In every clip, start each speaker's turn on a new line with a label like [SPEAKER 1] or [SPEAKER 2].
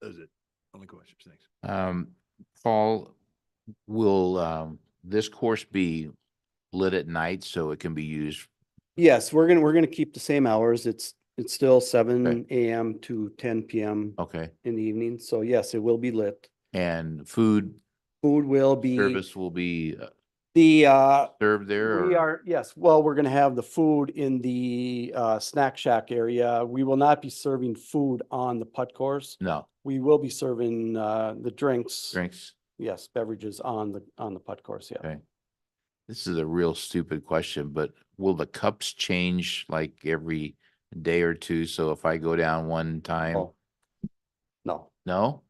[SPEAKER 1] Those are the only questions. Thanks.
[SPEAKER 2] Um, Paul, will, um, this course be lit at night so it can be used?
[SPEAKER 3] Yes, we're gonna, we're gonna keep the same hours. It's, it's still seven AM to ten PM
[SPEAKER 2] Okay,
[SPEAKER 3] in the evening. So yes, it will be lit.
[SPEAKER 2] and food
[SPEAKER 3] Food will be,
[SPEAKER 2] service will be uh,
[SPEAKER 3] the, uh,
[SPEAKER 2] served there?
[SPEAKER 3] we
[SPEAKER 2] or-
[SPEAKER 3] are, yes, well, we're gonna have the food in the, uh, snack shack area. We will not be serving food on the putt course.
[SPEAKER 2] No,
[SPEAKER 3] We will be serving, uh, the drinks,
[SPEAKER 2] drinks.
[SPEAKER 3] yes, beverages on the, on the putt course, yeah.
[SPEAKER 2] Okay. This is a real stupid question, but will the cups change like every day or two? So if I go down one time,
[SPEAKER 3] Oh. No.
[SPEAKER 2] no?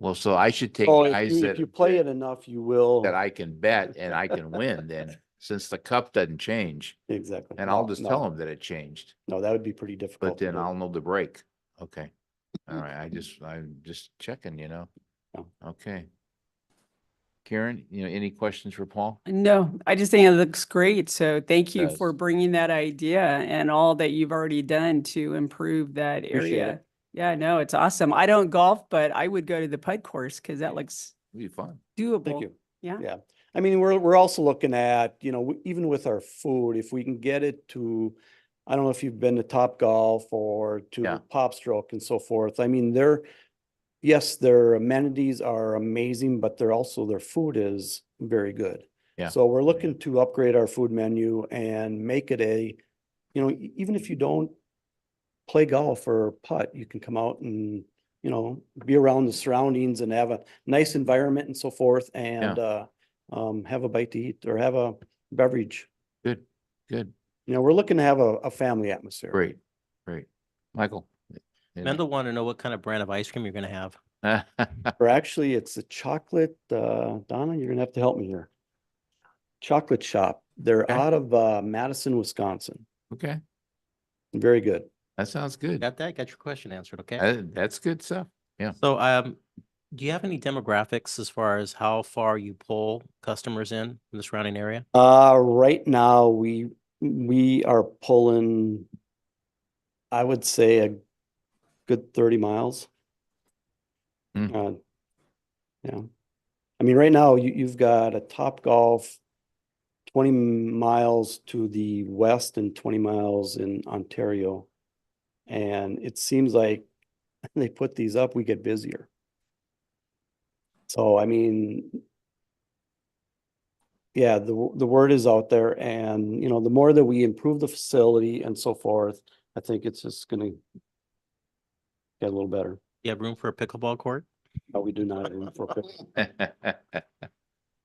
[SPEAKER 2] Well, so I should take
[SPEAKER 3] So Oh, if
[SPEAKER 2] guys
[SPEAKER 3] you,
[SPEAKER 2] that.
[SPEAKER 3] if you play it enough, you will.
[SPEAKER 2] that I can bet and I can win then, since the cup doesn't change.
[SPEAKER 3] Exactly.
[SPEAKER 2] And I'll
[SPEAKER 3] No,
[SPEAKER 2] just
[SPEAKER 3] no,
[SPEAKER 2] tell them that it changed,
[SPEAKER 3] No, that would be pretty difficult.
[SPEAKER 2] but
[SPEAKER 3] to
[SPEAKER 2] then
[SPEAKER 3] do.
[SPEAKER 2] I'll know the break. Okay. All right, I just, I'm just checking, you know?
[SPEAKER 3] Mm-hmm. Yeah.
[SPEAKER 2] Okay. Karen, you know, any questions for Paul?
[SPEAKER 4] No, I just think it looks great. So thank you for
[SPEAKER 2] Yes.
[SPEAKER 4] bringing that idea and all that you've already done to improve that
[SPEAKER 3] Appreciate it.
[SPEAKER 4] area. Yeah, no, it's awesome. I don't golf, but I would go to the putt course because that looks
[SPEAKER 2] It'll be fun.
[SPEAKER 4] doable.
[SPEAKER 3] Thank you.
[SPEAKER 4] Yeah.
[SPEAKER 3] Yeah. I mean, we're, we're also looking at, you know, w- even with our food, if we can get it to, I don't know if you've been to Top Golf or
[SPEAKER 2] Yeah.
[SPEAKER 3] to Pop Stroke and so forth. I mean, they're, yes, their amenities are amazing, but they're also, their food is very good.
[SPEAKER 2] Yeah.
[SPEAKER 3] So we're looking to upgrade our food menu and make it a, you know, e- even if you don't play golf or putt, you can come out and, you know, be around the surroundings and have a nice environment and so forth and, uh, um, have a bite to eat or have a beverage.
[SPEAKER 2] Good, good,
[SPEAKER 3] You know, we're looking to have a, a family atmosphere.
[SPEAKER 2] great, great. Michael? any-
[SPEAKER 5] Mendel want to know what kind of brand of ice cream you're going to have.
[SPEAKER 3] Or actually, it's a chocolate, uh, Donna, you're gonna have to help me here. Chocolate shop. They're
[SPEAKER 2] Okay.
[SPEAKER 3] out of, uh, Madison, Wisconsin.
[SPEAKER 2] Okay,
[SPEAKER 3] Very good.
[SPEAKER 2] that sounds good.
[SPEAKER 5] Got that? Got your question answered, okay?
[SPEAKER 2] That- That's good stuff. yeah.
[SPEAKER 5] So, um, do you have any demographics as far as how far you pull customers in from the surrounding area?
[SPEAKER 3] Uh, right now, we, we are pulling, I would say a good thirty miles.
[SPEAKER 2] Hmm.
[SPEAKER 3] Uh, yeah. I mean, right now, you, you've got a Top Golf twenty miles to the west and twenty miles in Ontario. And it seems like they put these up, we get busier. So I mean, yeah, the, w- the word is out there and, you know, the more that we improve the facility and so forth, I think it's just gonna get a little better.
[SPEAKER 5] You have room for a pickleball court?
[SPEAKER 3] No, we do not. have room for pick-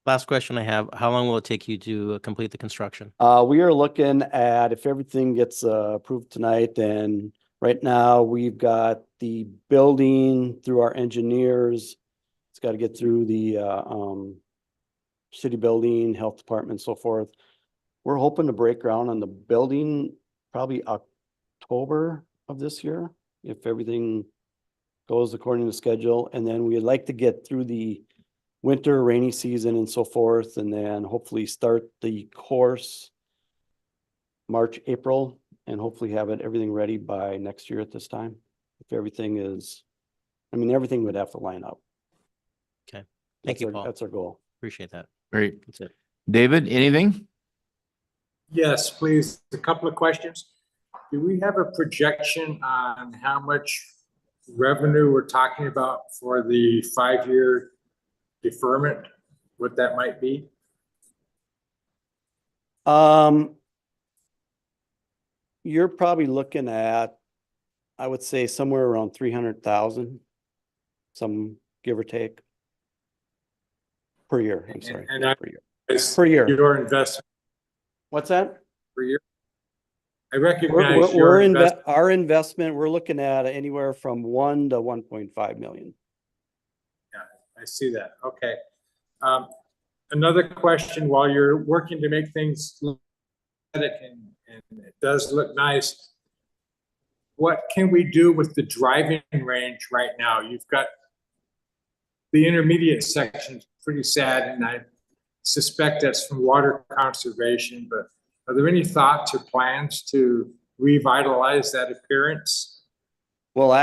[SPEAKER 5] Last question I have, how long will it take you to uh, complete the construction?
[SPEAKER 3] Uh, we are looking at if everything gets uh, approved tonight, then right now we've got the building through our engineers. It's got to get through the, uh, um, city building, health department, so forth. We're hoping to break ground on the building probably October of this year, if everything goes according to schedule. And then we'd like to get through the winter rainy season and so forth, and then hopefully start the course March, April, and hopefully have it, everything ready by next year at this time. If everything is, I mean, everything would have to line up.
[SPEAKER 5] Okay.
[SPEAKER 3] That's
[SPEAKER 5] you,
[SPEAKER 3] our-
[SPEAKER 5] Paul.
[SPEAKER 3] That's our goal.
[SPEAKER 5] Appreciate that.
[SPEAKER 2] Great.
[SPEAKER 5] That's it.
[SPEAKER 2] David, anything?
[SPEAKER 6] Yes, please. A couple of questions. Do we have a projection on how much revenue we're talking about for the five-year deferment? What that might be?
[SPEAKER 3] Um, you're probably looking at, I would say somewhere around three hundred thousand, some give or take. Per year, I'm
[SPEAKER 6] And-
[SPEAKER 3] sorry.
[SPEAKER 6] and
[SPEAKER 3] not
[SPEAKER 6] I-
[SPEAKER 3] per year.
[SPEAKER 6] Is
[SPEAKER 3] Per year.
[SPEAKER 6] Your investment
[SPEAKER 3] What's that?
[SPEAKER 6] per year? I
[SPEAKER 3] We're,
[SPEAKER 6] recognize
[SPEAKER 3] we're, we're
[SPEAKER 6] your
[SPEAKER 3] inve-
[SPEAKER 6] investment.
[SPEAKER 3] our investment, we're looking at anywhere from one to one point five million.
[SPEAKER 6] I see that. Okay. Um, Another question, while you're working to make things look aesthetic and, and it does look nice, what can we do with the driving range right now? You've got the intermediate section's pretty sad and I suspect that's from water conservation, but are there any thoughts or plans to revitalize that appearance?
[SPEAKER 3] Well,